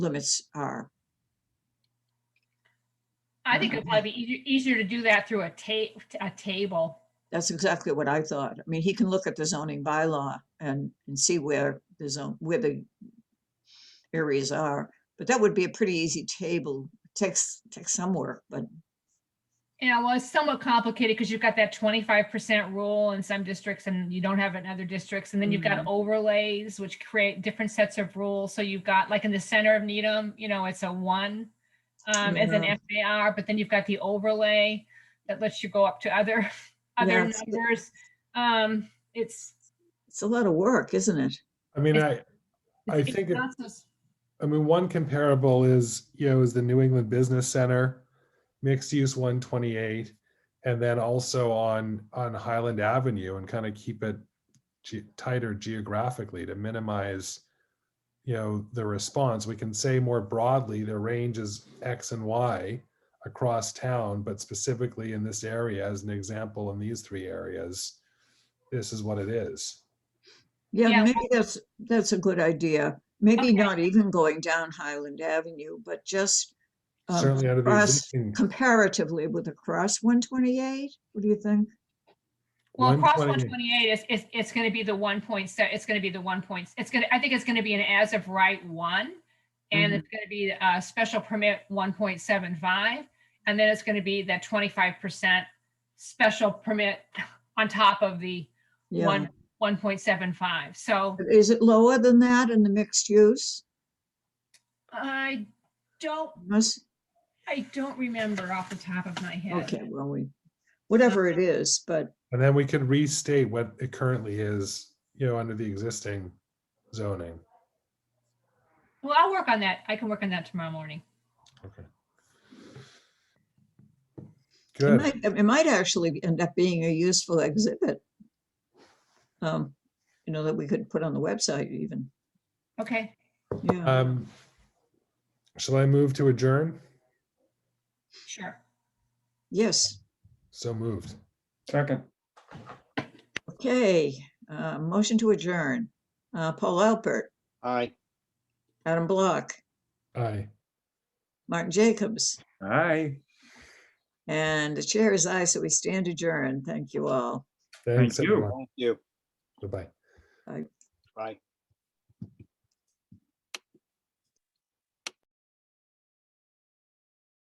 limits are. I think it'd probably be easier, easier to do that through a ta- a table. That's exactly what I thought. I mean, he can look at the zoning bylaw and, and see where the zone, where the areas are, but that would be a pretty easy table. Takes, takes some work, but Yeah, well, it's somewhat complicated because you've got that twenty-five percent rule in some districts and you don't have it in other districts. And then you've got overlays, which create different sets of rules. So you've got, like in the center of Needham, you know, it's a one um, as an Yeah. FAR, but then you've got the overlay that lets you go up to other, Yeah, other it's- numbers. Um, it's. it's a lot of work, isn't it? I mean, It's- I, I it's think it- not so s- I mean, one comparable is, you know, is the New England Business Center, mixed use one twenty-eight. And then also on, on Highland Avenue and kind of keep it ge- tighter geographically to minimize, you know, the response. We can say more broadly, the range is X and Y across town, but specifically in this area, as an example, in these three areas, this is what it is. Yeah, Yeah, maybe that's, that's a good idea. Maybe Okay. not even going down Highland Avenue, but just um, Certainly out of the across- existing comparatively with across one twenty-eight, what do you think? Well, across 128. 128 is, is, it's going to be the one point, se- it's going to be the one point, it's going to, I think it's going to be an as of right one. And Mhm. it's going to be a special permit 1.75. And then it's going to be that 25% special permit on top of the Yeah, one, 1.75. So is it lower than that in the mixed use? I don't, Must, I don't remember off the top of my head. Okay, well, we, whatever it is, but And then we could restate what it currently is, you know, under the existing zoning. Well, I'll work on that. I can work on that tomorrow morning. Okay. it Good. might, it might actually end up being a useful exhibit. Um, you know, that we could put on the website even, Okay. yeah. Um, shall I move to adjourn? Sure. Yes, So moved. Second, okay, uh, motion to adjourn. Uh, Paul Alpert, Aye. Adam Block, Aye. Martin Jacobs, aye. and the chair is aye, so we stand adjourned. Thank you all. Thanks, you. everyone. Thank you. Goodbye. Bye.